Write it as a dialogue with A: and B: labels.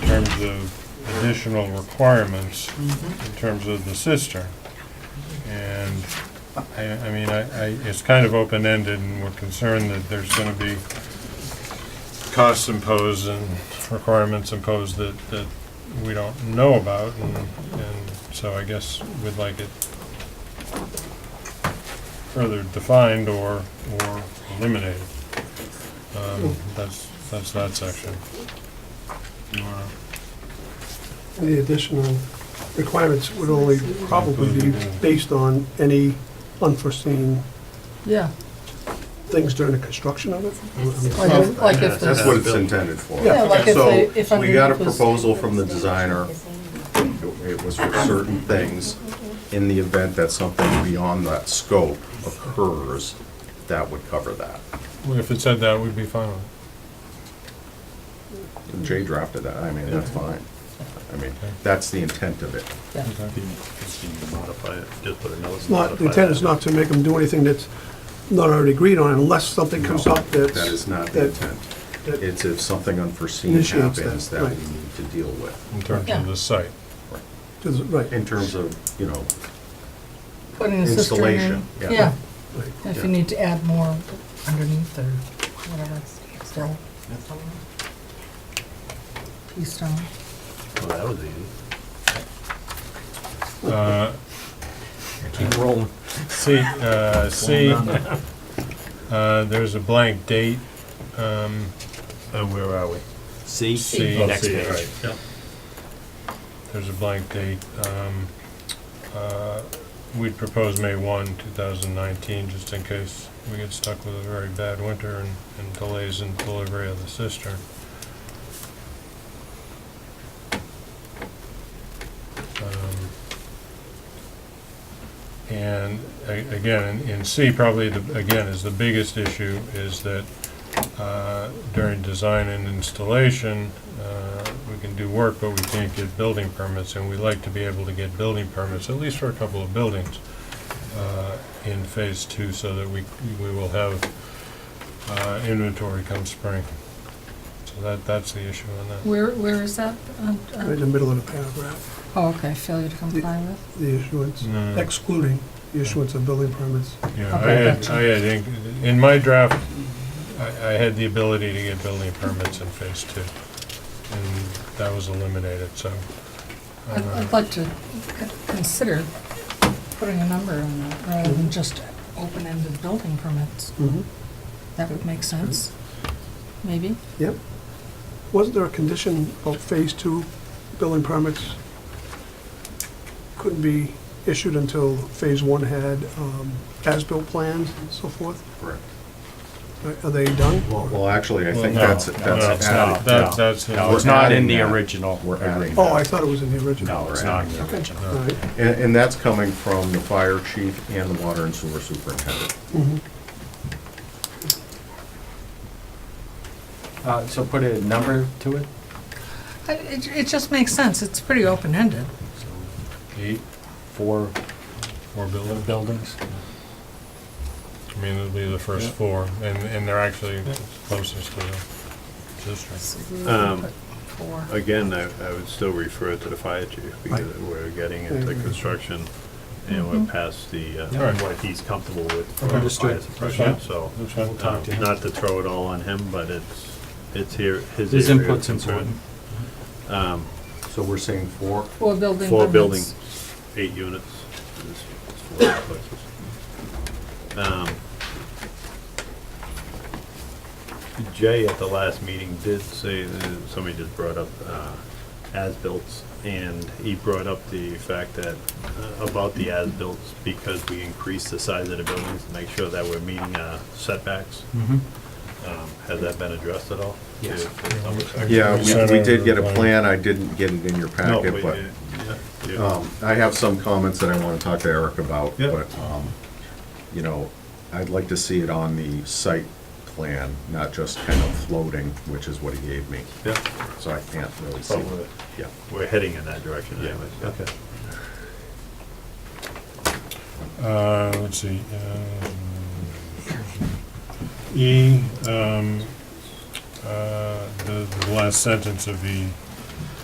A: terms of additional requirements
B: Mm-hmm.
A: in terms of the cistern. And, I, I mean, I, I, it's kind of open-ended, and we're concerned that there's gonna be costs imposed and requirements imposed that, that we don't know about, and, and so I guess we'd like it further defined or, or eliminated. Um, that's, that's that section. You wanna-
C: The additional requirements would only probably be based on any unforeseen
B: Yeah,
C: things during the construction of it.
B: like if, like if
D: That's
B: the,
D: what it's intended for.
B: yeah, like if
D: So,
B: they, if underneath was.
D: we got a proposal from the designer. It was for certain things. In the event that something beyond that scope occurs, that would cover that.
A: Well, If it said that, we'd be fine with it.
D: Jay drafted that, I mean, that's fine. I mean, that's the intent of it.
B: Yeah.
A: Okay.
E: Modify it, just put another.
C: It's not, the intent is not to make them do anything that's not already agreed on unless something comes up that's.
D: That is not the
C: that-
D: intent.
C: that-
D: It's if something unforeseen
C: Initiates that,
D: happens that we
C: right.
D: need to deal with.
A: In terms
B: Yeah.
A: of the site.
C: that's Right.
D: In terms of, you know,
B: Putting a cistern in.
D: installation, yeah.
B: Yeah,
C: right.
B: if
D: Yeah.
B: you need to add more underneath or whatever, still. Piece down.
E: Well, that was easy.
A: Uh,
F: Keep rolling.
A: C, uh, C, uh, there's a blank date. Um, uh, where are we?
F: See?
A: C.
F: Next page.
A: There's a blank date. Um, uh, We'd propose May 1, 2019, just in case we get stuck with a very bad winter and- and delays in delivery of the cistern. Um, And a- again, in- in C, probably, the- again, is the biggest issue, is that uh, during design and installation, uh, we can do work, but we can't get building permits, and we like to be able to get building permits, at least for a couple of buildings, uh, in phase two, so that we, we will have uh, inventory come spring. So that, that's the issue on that.
B: Where, where is that? Uh,
C: Right in
B: uh,
C: the middle of the paragraph,
B: Oh, okay, failure to comply with.
C: the issuance,
A: Mm.
C: excluding the issuance of building permits.
A: Yeah, I
B: Okay,
A: had,
B: gotcha.
A: I had, in- in my draft, I, I had the ability to get building permits in phase two, and that was eliminated, so. uh,
B: I'd, I'd like to c- consider putting a number on that rather than just open-ended building permits.
C: Mhm.
B: That would make sense, maybe.
C: Yep. Wasn't there a condition about phase two building permits couldn't be issued until phase one had um, as-built plans and so forth?
D: correct.
C: Are- Are they done?
D: Well, actually, I
A: Well,
D: think
A: no,
D: that's,
A: no,
D: that's
A: it's
D: added.
A: not. That- That's.
D: We're
F: No, it's not in
D: adding
F: the
D: that.
F: original.
D: We're adding
C: Oh, I
D: that.
C: thought it was in the original.
F: No, it's not in the
C: Okay.
F: original.
C: All right.
D: And, and that's coming from the fire chief and the water and sewer superintendent.
F: Uh, So put a number to it?
B: I- It, it just makes sense, it's pretty open-ended.
A: Eight,
F: Four
A: four buildings.
F: buildings?
A: I mean, it'll be the first
F: Yeah.
A: four, and, and they're actually closest to the district.
E: Um,
B: Four.
E: Again, I, I would still refer it to the fire chief because we're getting into
C: Mhm.
E: construction and we're past the,
A: Yeah.
E: uh, what he's comfortable with for
F: Okay.
E: fire
F: Understood.
E: suppression,
A: That's
E: so.
A: That's fine.
E: uh, Not to throw it all on him, but it's, it's here, his
F: His
E: area of
F: input's
E: concern.
F: important.
E: Um,
D: So we're seeing four,
B: Four building
E: Four
B: permits.
E: buildings, eight units. is- is four places. Um, Jay at the last meeting did say, uh, somebody just brought up uh, as-bills, and he brought up the fact that, uh, about the as-bills, because we increased the size of the buildings to make sure that we're meeting uh, setbacks.
F: Mm-hmm.
E: Um, Has that been addressed at all?
F: Yes.
D: yeah, we, we did get a
A: Center.
D: plan, I didn't get it in your
E: No,
D: packet,
E: we-
D: but,
E: yeah, yeah.
D: um, I have some comments that I wanna talk to Eric about,
E: Yeah.
D: but, um, you know, I'd like to see it on the site plan, not just kind of floating, which is what he gave me,
E: Yeah,
D: so I can't Oh, really see.
E: but we're-
D: Yeah,
E: we're heading in that direction anyways. Okay.
A: Uh, let's see. um, E, um, uh, the, the last sentence of E